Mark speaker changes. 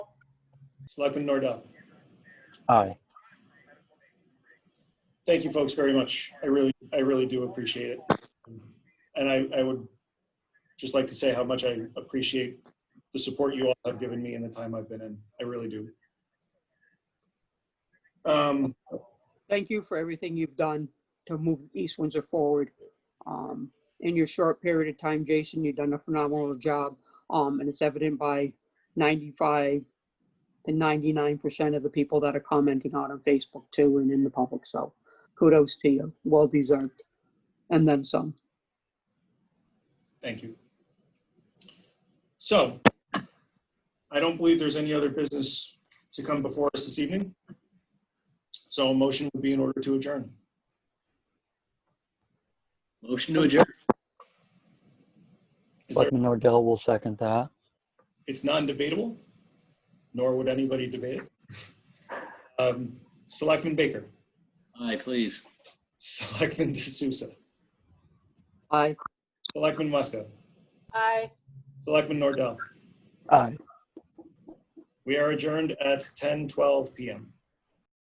Speaker 1: Selectman Nordup.
Speaker 2: Aye.
Speaker 1: Thank you, folks, very much. I really, I really do appreciate it. And I, I would just like to say how much I appreciate the support you all have given me in the time I've been in. I really do. Um,
Speaker 3: Thank you for everything you've done to move East Windsor forward. Um, In your short period of time, Jason, you've done a phenomenal job, um, and it's evident by 95 to 99% of the people that are commenting out on Facebook too and in the public, so kudos to you, well deserved. And then some.
Speaker 1: Thank you. So I don't believe there's any other business to come before us this evening. So a motion would be in order to adjourn.
Speaker 4: Motion to adjourn.
Speaker 1: Is there,
Speaker 2: Selectman Nordell will second that.
Speaker 1: it's non-debatable, nor would anybody debate it. Um, Selectman Baker,
Speaker 4: Aye, please.
Speaker 1: Selectman D'Souza,
Speaker 3: Aye,
Speaker 1: Selectman Muska,
Speaker 5: Aye.
Speaker 1: Selectman Nordell.
Speaker 2: Aye.
Speaker 1: We are adjourned at 10:12 PM.